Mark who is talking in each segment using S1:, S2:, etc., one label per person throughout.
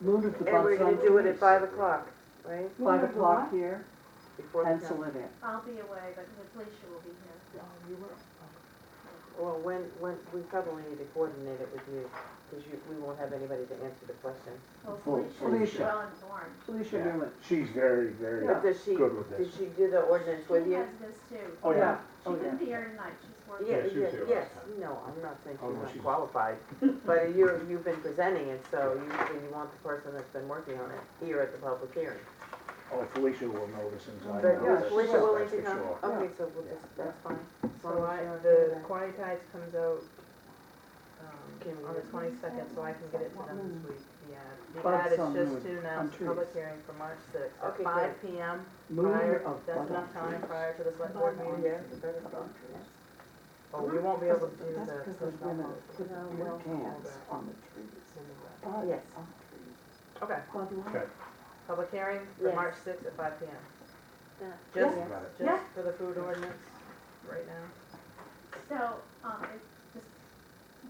S1: Moon is the
S2: And we're
S1: bus
S2: gonna
S1: on
S2: do it at five o'clock, right?
S1: five o'clock here,
S2: Before the
S1: pencil
S2: council.
S1: it in.
S3: I'll be away, but Felicia will be here.
S2: Well, when, when, we probably need to coordinate it with you, because you, we won't have anybody to answer the question.
S3: Well,
S4: Well,
S3: Felicia's
S1: Felicia.
S3: well informed.
S1: Felicia
S4: Yeah.
S1: Newman.
S4: She's very, very
S2: But does she,
S4: good with
S2: did
S4: this.
S2: she do the ordinance with
S3: She
S2: you?
S3: has this too.
S4: Oh, yeah.
S3: She
S1: Oh, yeah.
S3: couldn't be here tonight, she's working.
S2: Yeah,
S4: Yeah, she
S2: yeah,
S4: was here
S2: yes,
S4: last
S2: no, I'm not saying
S4: Oh,
S2: she's
S4: no,
S2: not
S4: she's-
S2: qualified, but you're, you've been presenting it, so usually you want the person that's been working on it here at the public hearing.
S4: Oh, Felicia will know this since I
S2: But
S4: know
S1: yeah,
S2: is
S4: this,
S2: Felicia willing
S4: that's
S2: to
S4: for
S2: come?
S4: sure.
S2: Okay, so we'll just, that's fine.
S5: So
S2: Well,
S5: I,
S2: yeah,
S5: the
S2: yeah.
S5: Quanti Tides comes out,
S2: Can we
S5: um, on
S2: get
S5: the
S2: it?
S5: twenty-second, so I can get it to them this week, yeah. The
S1: Bugs
S5: ad is
S1: on
S5: just
S1: wood,
S5: to
S1: on
S5: announce the
S1: trees.
S5: public hearing for March sixth,
S2: Okay,
S5: at five P M,
S1: Moon
S5: prior,
S1: of
S5: that's
S1: bus
S5: enough time prior to the select board meeting.
S2: Yeah, the better thought.
S5: Well, we won't be able to do
S1: That's
S5: the
S1: because there's
S5: personal
S1: women
S5: policy.
S1: putting their cans on the trees. Buds
S2: Yes.
S1: on trees.
S5: Okay,
S1: Bud Light.
S4: Okay.
S5: public hearing for
S2: Yes.
S5: March sixth at five P M.
S2: Yeah.
S5: Just,
S4: Got it.
S5: just for the food ordinance, right now.
S3: So, um, it's just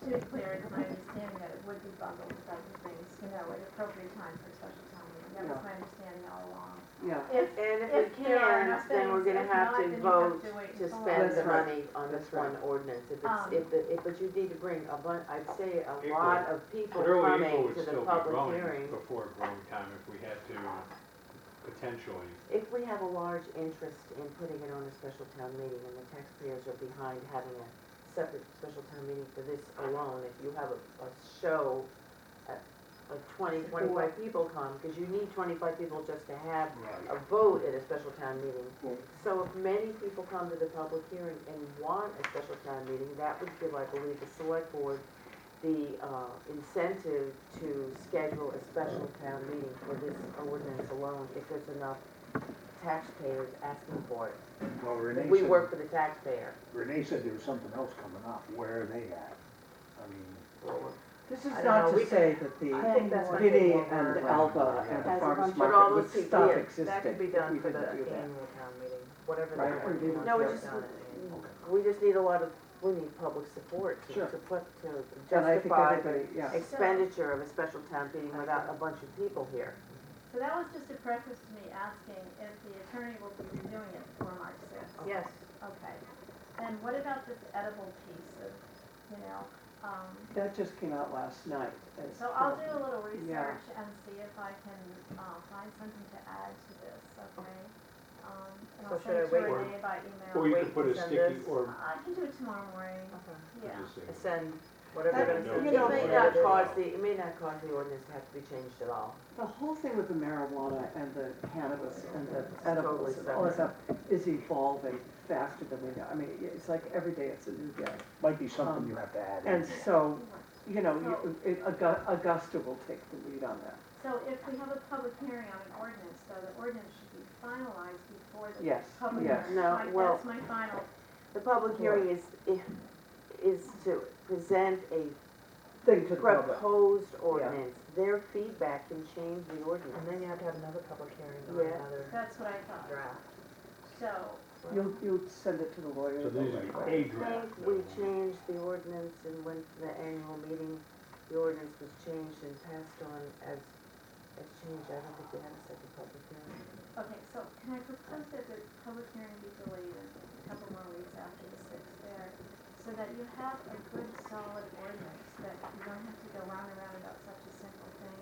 S3: to be clear, it's my understanding that it would be bundled with other things, you know, at appropriate time for special town meeting. That was
S1: Yeah.
S3: my understanding all along.
S1: Yeah,
S3: If,
S2: And if
S3: If
S2: we
S3: there are
S2: can't,
S3: enough
S2: then we're
S3: things,
S2: gonna
S3: if
S2: have
S3: not,
S2: to
S3: then you
S2: vote
S3: have to wait
S2: to
S3: until-
S2: spend the
S1: That's right.
S2: money on this
S1: That's right.
S2: one ordinance. If
S3: Um,
S2: it's, if the, if, but you need to bring a bun, I'd say a
S6: April.
S2: lot of people
S6: But early April
S2: coming
S6: would
S2: to the
S6: still be
S2: public
S6: growing
S2: hearing.
S6: before growing time if we had to uh, potentially.
S2: If we have a large interest in putting it on a special town meeting and the taxpayers are behind having a separate special town meeting for this alone, if you have a, a show, uh, like twenty, twenty-five people come, because you need twenty-five people just to have
S4: Right.
S2: a vote at a special town meeting.
S4: Well-
S2: So if many people come to the public hearing and want a special town meeting, that would give, I believe, the select board the uh, incentive to schedule a special town meeting for this ordinance alone if there's enough taxpayers asking for it.
S4: Well, Renee
S2: We
S4: said-
S2: work for the taxpayer.
S4: Renee said there was something else coming up. Where are they at? I mean,
S1: this is
S5: I don't
S1: not
S5: know,
S1: to
S5: we
S1: say that
S5: I
S1: the
S5: think that's what
S1: Vinnie
S5: they want.
S1: and
S4: Right.
S1: Alba and
S2: As
S1: the
S2: a
S1: farmer's
S2: bunch of all
S1: market would
S2: those people,
S1: stop
S2: yeah,
S1: existing.
S5: That could be
S1: if
S5: done
S1: we
S5: for the
S1: didn't do that.
S5: annual town meeting, whatever the
S1: Right,
S5: board
S1: we didn't
S5: wants to
S1: do
S5: get
S2: that.
S5: done at the annual.
S2: We just need a lot of, we need public support to
S1: Sure.
S2: to put, to
S1: And I think
S2: justify
S1: everybody, yeah.
S2: expenditure of a special town meeting without a bunch of people here.
S3: so that was just a preface to me asking if the attorney will be reviewing it before March sixth.
S5: Yes,
S3: Okay. Then what about this edible piece of, you know, um,
S1: That just came out last night. as-
S3: so I'll do a little
S1: Yeah.
S3: research and see if I can, uh, find something to add to this, okay? Um, and
S5: So
S3: I'll
S5: should
S3: send
S5: I
S3: it to
S5: wait?
S3: Renee by email. Uh,
S6: Or you
S5: wait
S6: could put
S5: to
S6: a
S5: send
S6: sticky
S5: this.
S6: or.
S3: I can do it tomorrow morning, yeah.
S6: just say-
S5: send whatever they're gonna
S6: That-
S5: send.
S2: It
S6: you
S5: to
S6: know,
S5: the
S2: may
S5: board.
S2: not
S6: Yeah.
S2: cause the, it may not cause the ordinance to have to be changed at all.
S1: The whole thing with the marijuana and the cannabis and the edibles and
S2: Totally
S1: all that stuff is evolving faster than we know. I mean, it's like every day it's a new day.
S4: might be
S1: Um,
S4: something you have to add in.
S1: And so, you know,
S3: So-
S1: you- it- Augu- Augusta will take the lead on that.
S3: So if we have a public hearing on an ordinance, though, the ordinance should be finalized before the
S1: Yes,
S3: public
S1: yes.
S3: hearing.
S2: No,
S3: My-
S2: well-
S3: That's my final,
S2: The public hearing is, is to present a
S1: Thing to the public.
S2: proposed ordinance. Their feedback can change the ordinance.
S5: And then you have to have another public hearing on
S2: Yeah.
S5: another
S3: that's what I thought.
S5: draft.
S3: So,
S1: You'll, you'll send it to the lawyer.
S6: So these are a draft.
S2: think we changed the ordinance and went to the annual meeting, the ordinance was changed and passed on as, as changed. I don't think we had a second public hearing.
S3: okay, so can I propose that the public hearing be delayed a couple more weeks after the sixth there? So that you have a good solid ordinance, that you don't have to go round and round about such a simple thing.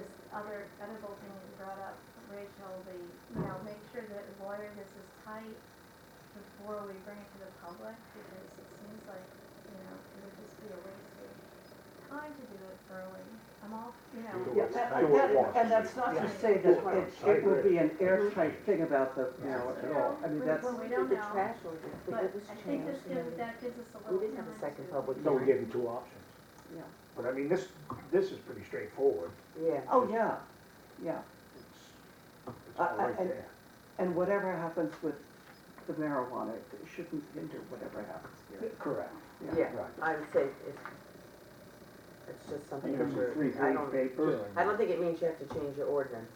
S3: This other edible thing that you brought up, Rachel, the, you know, make sure that lawyer, this is tight before we bring it to the public, because it seems like, you know, it would just be a waste of time to do it early. I'm all, you know.
S6: Yeah.
S1: Yeah, that-
S4: Do it
S1: that-
S4: once.
S1: And that's not to say that it, it would be an airtight thing about the marijuana at all. I mean, that's,
S2: Well, we
S3: We don't
S2: did the
S3: know.
S2: trash ordinance, but
S3: But
S2: it was
S3: I think
S2: changed.
S3: this
S2: and
S3: gives,
S2: then
S3: that gives us a
S2: We
S3: little time.
S2: didn't have a second
S3: to-
S2: public
S4: So we
S2: hearing.
S4: gave them two options.
S1: Yeah.
S4: But I mean, this, this is pretty straightforward.
S2: Yeah.
S1: oh, yeah, yeah.
S4: It's it's
S2: Uh,
S1: I-
S4: all
S1: I-
S4: right
S1: and-
S4: there.
S1: And whatever happens with the marijuana it shouldn't hinder whatever happens here.
S4: Correct.
S2: Yeah,
S4: Right.
S2: I would say it's, it's just
S4: I
S2: something
S4: think
S2: that
S4: it's a
S2: we're, I
S4: three-page
S2: don't,
S4: paper.
S2: I don't think it means you have to change your ordinance.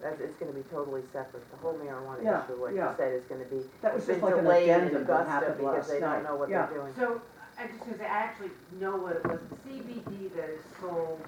S2: That's, it's gonna be totally separate, the whole marijuana
S1: Yeah,
S2: issue, like you
S1: yeah.
S2: said, is gonna be,
S1: That was
S2: it's been
S1: just like an
S2: delayed in
S1: addendum that
S2: Augusta
S1: happened
S2: because
S1: last
S2: they don't
S1: night.
S2: know what
S1: Yeah.
S2: they're doing.
S7: So, I'm just gonna say, I actually know what it was, CBD that is sold